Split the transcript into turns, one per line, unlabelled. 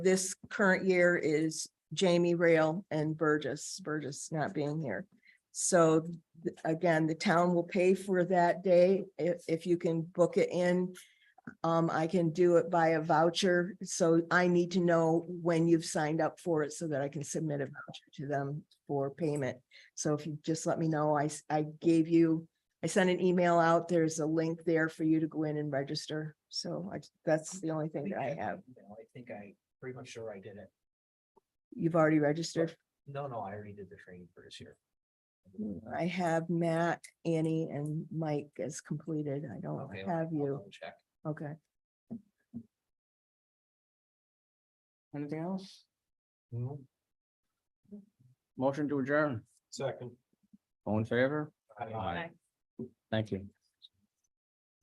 This current year is Jamie Rail and Burgess, Burgess not being here. So th- again, the town will pay for that day if, if you can book it in. Um, I can do it by a voucher, so I need to know when you've signed up for it so that I can submit a voucher to them for payment. So if you just let me know, I, s- I gave you, I sent an email out, there's a link there for you to go in and register. So I, that's the only thing that I have.
No, I think I, pretty much sure I did it.
You've already registered.
No, no, I already did the training for this year.
I have Matt, Annie and Mike as completed. I don't
Okay, I'll-
Oh, have
I'll
you.
double Check.
Okay.
Anything else?
Mhm.
Motion to adjourn.
Second.
All in favor?
Aye.
Thank you.